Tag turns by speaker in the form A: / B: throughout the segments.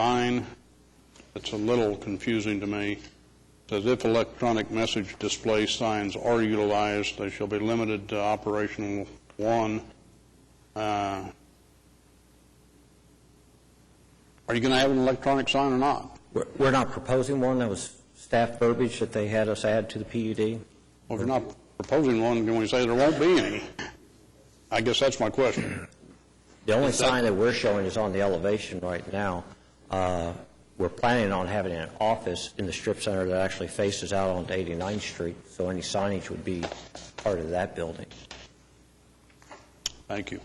A: sign that's a little confusing to me. Says if electronic message display signs are utilized, they shall be limited to operational one. Uh, Are you going to have an electronic sign or not?
B: We're we're not proposing one, that was staff verbiage that they had us add to the PUD.
A: Well, if you're not proposing one, can we say there won't be any? I guess that's my question.
B: The only sign that we're showing is on the elevation right now. Uh, We're planning on having an office in the strip center that actually faces out onto 89th Street, so any signage would be part of that building.
A: Thank you.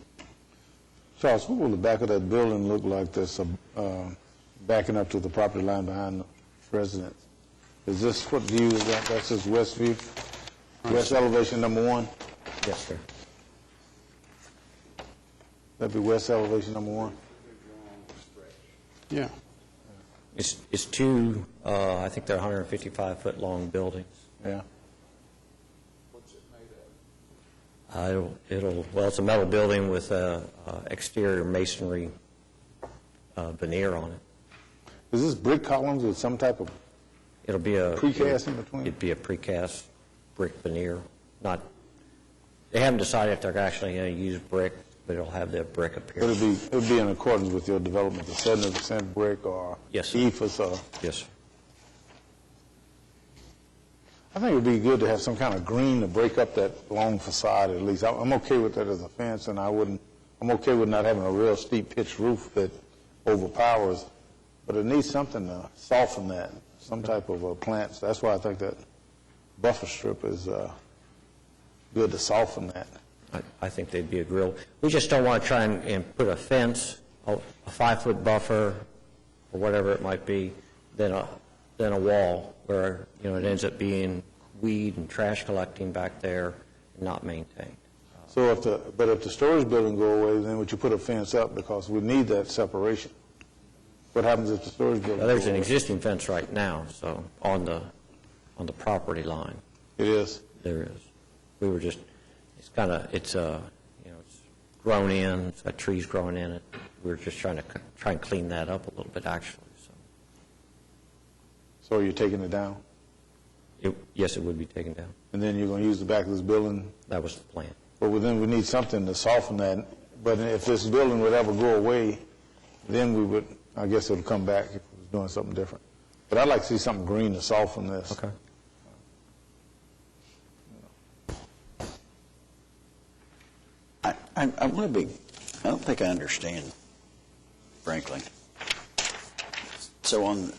C: Charles, what will the back of that building look like that's uh, backing up to the property line behind the residence? Is this, what view is that? That's just west view, west elevation number one?
B: Yes, sir.
C: That'd be west elevation number one?
A: Yeah.
B: It's it's two, uh, I think they're 155-foot-long buildings.
C: Yeah.
B: Uh, It'll, it'll well, it's a metal building with uh, uh, exterior masonry uh, veneer on it.
C: Is this brick columns with some type of,
B: It'll be a...
C: Precast in between?
B: It'd be a precast brick veneer, not, they haven't decided if they're actually going to use brick, but it'll have that brick
C: it'll
B: appearance.
C: be, it'll be in accordance with your development, the 70% brick or
B: Yes, sir.
C: ethos or?
B: Yes, sir.
C: I think it'd be good to have some kind of green to break up that long facade at least. I'm I'm okay with that as a fence, and I wouldn't, I'm okay with not having a real steep pitched roof that overpowers, but it needs something to soften that, some type of uh, plants. That's why I think that buffer strip is uh, good to soften that.
B: I- I think they'd be a grill. We just don't want to try and, and put a fence, a a five-foot buffer, or whatever it might be, than a, than a wall, where, you know, it ends up being weed and trash collecting back there, not maintained.
C: So if the, but if the storage building go away, then would you put a fence up because we need that separation? What happens if the storage building?
B: Now, there's an
C: go away?
B: existing fence right now, so, on the, on the property line,
C: It is.
B: there is. We were just, it's kind of, it's, uh, you know, it's grown in, it's got trees growing in it. We were just trying to, c- try and clean that up a little bit, actually, so.
C: So you're taking it down,
B: It- Yes, it would be taken down.
C: and then you're going to use the back of this building
B: That was the plan.
C: But then we need something to soften that. But if this building would ever go away, then we would, I guess it would come back if it was doing something different. But I'd like to see something green to soften this.
D: I, I, I want to be, I don't think I understand, frankly. So on,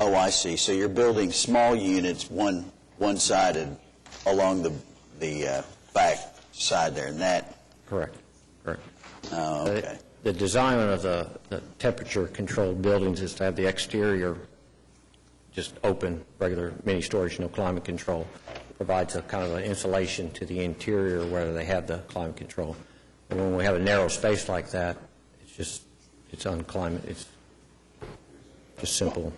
D: oh, I see. So you're building small units, one, one-sided along the, the uh, back side there, and that,
B: Correct, correct.
D: oh,
B: The-
D: okay.
B: Uh, The design of the the temperature-controlled buildings is to have the exterior just open, regular mini-storage, no climate control. Provides a kind of an insulation to the interior where they have the climate control. And when we have a narrow space like that, it's just, it's unclimate, it's just simple.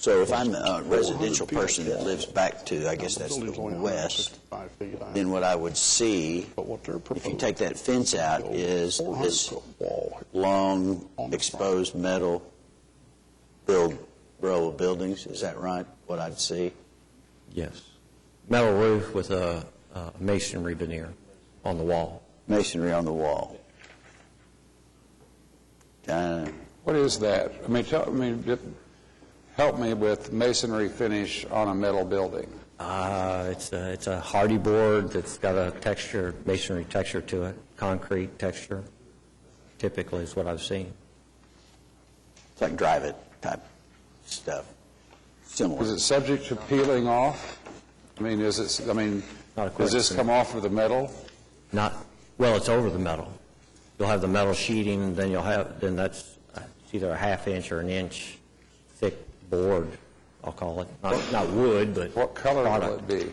D: So if I'm a residential person that lives back to, I guess that's the
A: Building's only
D: west,
A: 165 feet high.
D: then what I would see,
A: But what they're
D: if you
A: proposing-
D: take that fence out, is this long, exposed metal build, row of buildings, is that right, what I'd see?
B: Yes. Metal roof with a a masonry veneer on the wall.
D: Masonry on the wall. Uh,
E: What is that? I mean, tell, I mean, d- help me with masonry finish on a metal building.
B: Uh, It's a it's a hardy board that's got a texture, masonry texture to it, concrete texture, typically is what I've seen.
D: It's like drive-it type stuff,
E: Is
D: similar.
E: it subject to peeling off? I mean, is it, I mean,
B: Not a
E: does this
B: question.
E: come off of the metal?
B: Not, well, it's over the metal. You'll have the metal sheeting, then you'll have, then that's, uh, it's either a half inch or an inch thick board, I'll call it. Not not wood, but
E: What color will it
B: product.
E: be?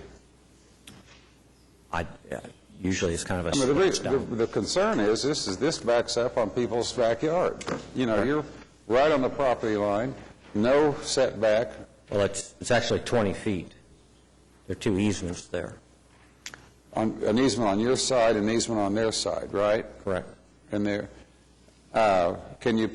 B: I- uh, Usually it's kind of a...
E: I mean, the, re-
B: stone.
E: the the concern is, this is, this backs up on people's backyard. You know, you're right on the property line, no setback.
B: Well, it's, it's actually 20 feet. There are two easements there.
E: on, an easement on your side, an easement on their side, right?
B: Correct.
E: And there, uh, can you